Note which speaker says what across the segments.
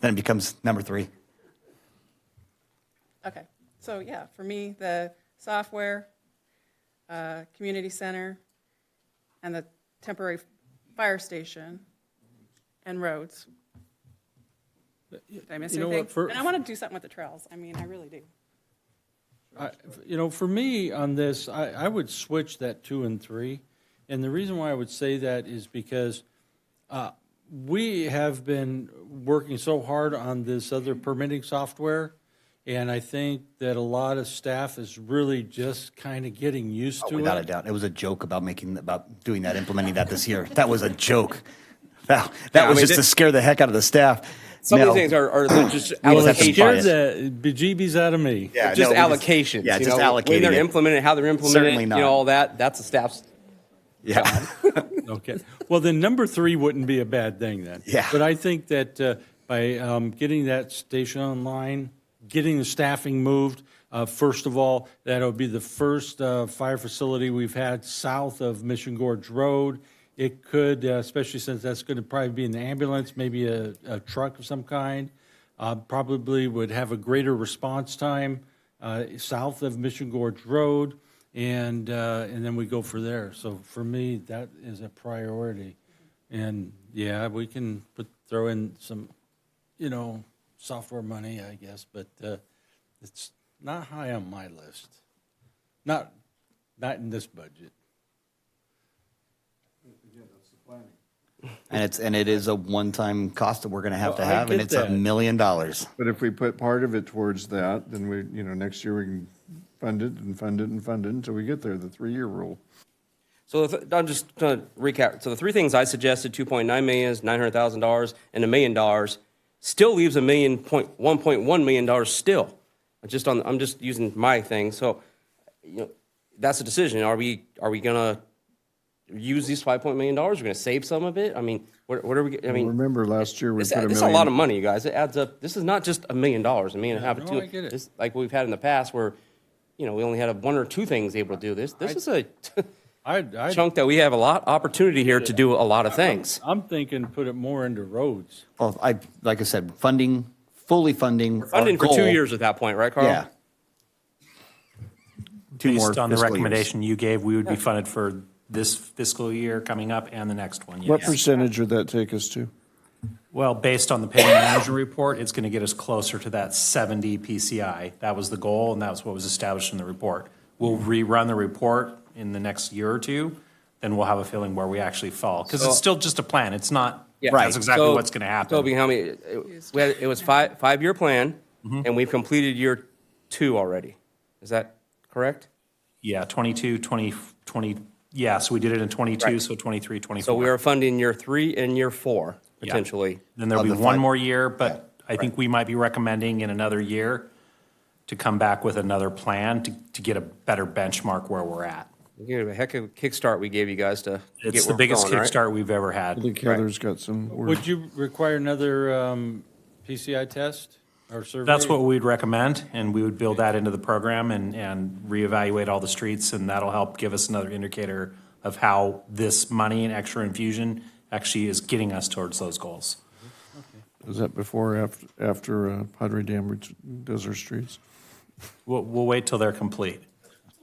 Speaker 1: Then it becomes number three.
Speaker 2: Okay, so yeah, for me, the software, uh, community center, and the temporary fire station and roads. Did I miss
Speaker 3: You know what,
Speaker 2: anything?
Speaker 3: for-
Speaker 2: And I want to do something with the trails, I mean, I really do.
Speaker 3: I- You know, for me on this, I, I would switch that two and three. And the reason why I would say that is because uh, we have been working so hard on this other permitting software. And I think that a lot of staff is really just kind of getting used to
Speaker 1: Oh, Without a
Speaker 3: it.
Speaker 1: doubt, it was a joke about making, about doing that, implementing that this year. That was a joke. That, that
Speaker 4: I
Speaker 1: was
Speaker 4: mean,
Speaker 1: just to
Speaker 4: that-
Speaker 1: scare the heck out of the staff.
Speaker 4: Some
Speaker 1: No.
Speaker 4: of these things are, are just
Speaker 1: Well, it's
Speaker 4: allocation.
Speaker 1: cheaper.
Speaker 3: Scared
Speaker 1: bias.
Speaker 3: the bejeebies out of me.
Speaker 1: Yeah,
Speaker 4: just
Speaker 1: no, we just-
Speaker 4: allocations.
Speaker 1: yeah,
Speaker 4: you
Speaker 1: just
Speaker 4: know, When
Speaker 1: allocating
Speaker 4: they're
Speaker 1: it.
Speaker 4: implemented, how they're implemented,
Speaker 1: Certainly
Speaker 4: you
Speaker 1: not.
Speaker 4: know, all that, that's the staff's.
Speaker 1: Yeah.
Speaker 3: Okay. Well, then number three wouldn't be a bad thing then.
Speaker 1: Yeah.
Speaker 3: But I think that uh, by um, getting that station online, getting the staffing moved, uh, first of all, that'll be the first uh, fire facility we've had south of Mission Gorge Road. It could, uh, especially since that's going to probably be an ambulance, maybe a, a truck of some kind, uh, probably would have a greater response time uh, south of Mission Gorge Road, and, uh, and then we go for there. So for me, that is a priority. And, yeah, we can put, throw in some, you know, software money, I guess, but uh, it's not high on my list. Not, not in this budget.
Speaker 1: And it's, and it is a one-time cost that we're going to have to
Speaker 3: Well, I
Speaker 1: have, and
Speaker 3: get
Speaker 1: it's a
Speaker 3: that.
Speaker 1: million dollars.
Speaker 5: But if we put part of it towards that, then we, you know, next year we can fund it and fund it and fund it until we get there, the three-year rule.
Speaker 4: So the th- I'm just going to recap. So the three things I suggested: 2.9 million is 900 thousand dollars, and a million dollars still leaves a million point 1.1 million dollars still. I'm Just on, I'm just using my thing. So, you know, that's a decision. Are we are we going to use these 5.1 million dollars? We're going to save some of it. I mean, what, what are we? I mean,
Speaker 5: Remember last year we
Speaker 4: It's,
Speaker 5: put a million.
Speaker 4: it's a lot of money, you guys. It adds up. This is not just a million dollars, a million and a half. or
Speaker 3: no,
Speaker 4: two.
Speaker 3: I get it.
Speaker 4: This, like we've had in the past, where you know we only had a, one or two things able to do this. This is a
Speaker 3: I, I,
Speaker 4: chunk that we have a lot opportunity here to do a lot of things.
Speaker 3: I'm thinking put it more into roads.
Speaker 1: Well, I, like I said, funding, fully funding. our
Speaker 4: Funding for two
Speaker 1: goal-
Speaker 4: years at that point, right, Carl?
Speaker 1: Yeah. Two more
Speaker 6: Based on the
Speaker 1: fiscal years.
Speaker 6: recommendation you gave, we would be funded for this fiscal year coming up and the next one,
Speaker 5: What
Speaker 6: yes.
Speaker 5: percentage would that take us to?
Speaker 6: Well, based on the paying manager report, it's going to get us closer to that 70 PCI. That was the goal, and that's what was established in the report. We'll rerun the report in the next year or two, then we'll have a feeling where we actually fall. Because it's still just a plan, it's not,
Speaker 1: Right.
Speaker 6: that's exactly
Speaker 4: So-
Speaker 6: what's going to
Speaker 4: Toby,
Speaker 6: happen.
Speaker 4: how many? It, we had, it was five five year plan,
Speaker 6: Mm-hmm.
Speaker 4: and we've completed year two already. Is that correct?
Speaker 6: Yeah, 22, 20, 20, yeah, so we did it in 22, so 23, 24.
Speaker 4: So we are funding year three and year four
Speaker 6: Yeah.
Speaker 4: potentially.
Speaker 6: Then there'll
Speaker 1: Of
Speaker 6: be
Speaker 1: the
Speaker 6: one
Speaker 1: five-
Speaker 6: more year, but I think we might be recommending in another year to come back with another plan to, to get a better benchmark where we're at.
Speaker 4: We gave a heck of a kickstart we gave you guys to. get
Speaker 6: It's the
Speaker 4: where we're
Speaker 6: biggest
Speaker 4: going, right?
Speaker 6: kickstart we've ever
Speaker 5: I
Speaker 6: had.
Speaker 5: think Heather's got some. words.
Speaker 3: Would you require another um, PCI test or survey?
Speaker 6: That's what we'd recommend, and we would build that into the program and, and reevaluate all the streets, and that'll help give us another indicator of how this money and extra infusion actually is getting us towards those goals.
Speaker 5: Is that before or after, after uh, Padre Dam ret- does her streets?
Speaker 6: We'll, we'll wait till they're complete.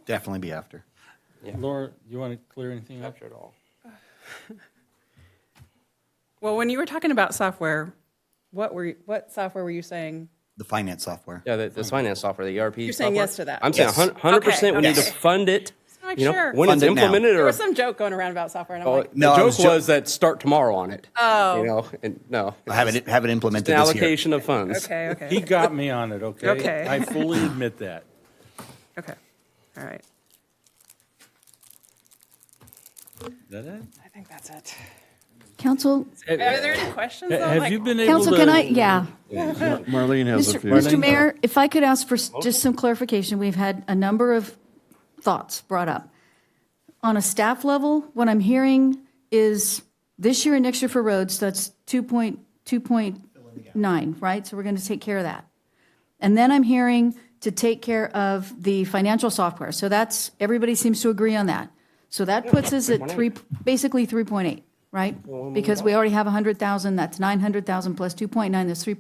Speaker 1: Definitely be after.
Speaker 3: Laura, you want to clear anything up?
Speaker 4: Capture it all.
Speaker 2: Well, when you were talking about software, what were, you- what software were you saying?
Speaker 1: The finance software.
Speaker 4: Yeah, the, the finance software, the ERP.
Speaker 2: You're saying
Speaker 4: software.
Speaker 2: yes to that.
Speaker 4: I'm saying
Speaker 1: Yes.
Speaker 4: hundred percent. We
Speaker 2: Okay,
Speaker 4: need to
Speaker 2: okay.
Speaker 4: fund it.
Speaker 2: Just wanna make
Speaker 4: You know,
Speaker 2: sure.
Speaker 4: when it's
Speaker 1: Fund it now.
Speaker 4: implemented
Speaker 2: There
Speaker 4: or.
Speaker 2: was some joke going around about software, and I'm
Speaker 4: Oh,
Speaker 2: like,
Speaker 4: The
Speaker 1: No, I
Speaker 4: joke
Speaker 1: was jo-
Speaker 4: was that start tomorrow on it.
Speaker 2: Oh.
Speaker 4: You know, and no.
Speaker 1: I have it, have it
Speaker 4: It's
Speaker 1: implemented
Speaker 4: an
Speaker 1: this year.
Speaker 4: allocation of funds.
Speaker 2: okay, okay.
Speaker 3: He got me on it, okay?
Speaker 2: Okay.
Speaker 3: I fully admit that.
Speaker 2: Okay, all right.
Speaker 3: Is that it?
Speaker 2: I think that's it.
Speaker 7: Council,
Speaker 2: Are there any questions? though?
Speaker 3: Have
Speaker 2: Like-
Speaker 3: you been able to?
Speaker 7: council, can I, yeah.
Speaker 5: Marlene has a
Speaker 7: Mr.
Speaker 5: few.
Speaker 7: Mr. Mayor, if I could ask for s- just some clarification, we've had a number of thoughts brought up. On a staff level, what I'm hearing is this year and next year for roads, that's 2.2.9, right? So we're going to take care of that. And then I'm hearing to take care of the financial software. So that's, everybody seems to agree on that. So that puts us at three, basically 3.8, right? Because we already have 100,000, that's 900,000 plus 2.9, that's 3.8.